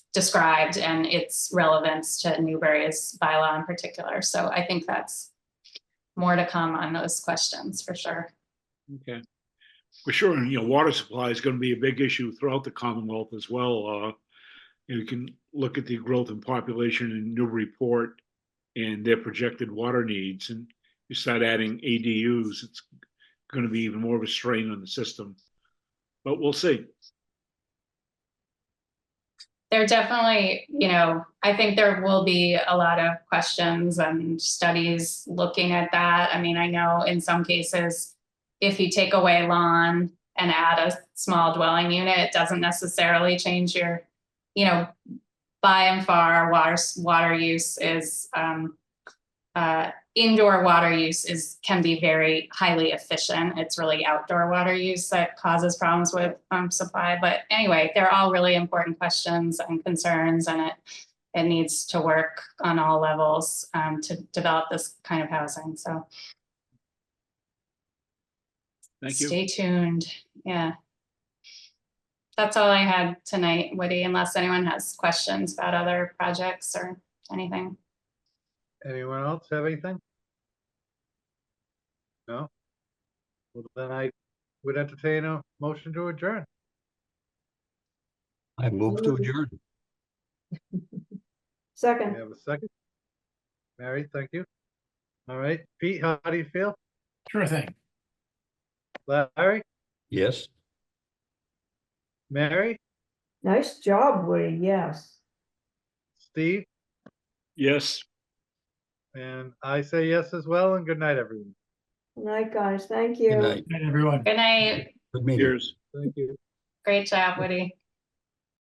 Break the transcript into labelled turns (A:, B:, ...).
A: described and its relevance to Newbury's bylaw in particular. So I think that's more to come on those questions for sure.
B: Okay. For sure, and you know, water supply is gonna be a big issue throughout the Commonwealth as well. Uh, you can look at the growth in population in Newburyport and their projected water needs, and you start adding ADUs, it's gonna be even more of a strain on the system. But we'll see.
A: There definitely, you know, I think there will be a lot of questions and studies looking at that. I mean, I know in some cases, if you take away lawn and add a small dwelling unit, it doesn't necessarily change your, you know, by and far, water, s- water use is, um, uh, indoor water use is, can be very highly efficient. It's really outdoor water use that causes problems with pump supply. But anyway, they're all really important questions and concerns and it, it needs to work on all levels, um, to develop this kind of housing. So
B: Thank you.
A: stay tuned. Yeah. That's all I had tonight, Woody, unless anyone has questions about other projects or anything.
C: Anyone else have anything? No? Well, then I would entertain a motion to adjourn.
D: I move to adjourn.
C: We
E: Second,
C: have a second. Mary, thank you. All right, Pete, how do you feel?
F: Sure thing.
C: Larry,
D: Yes.
C: Mary,
E: nice job, Woody, yes.
C: Steve,
B: Yes,
C: and I say yes as well, and good night, everyone.
E: Good Night, guys, thank you.
D: Good night.
F: Good night, everyone.
A: Good night.
D: Good meeting.
B: here's.
C: Thank you.
A: Great job, Woody.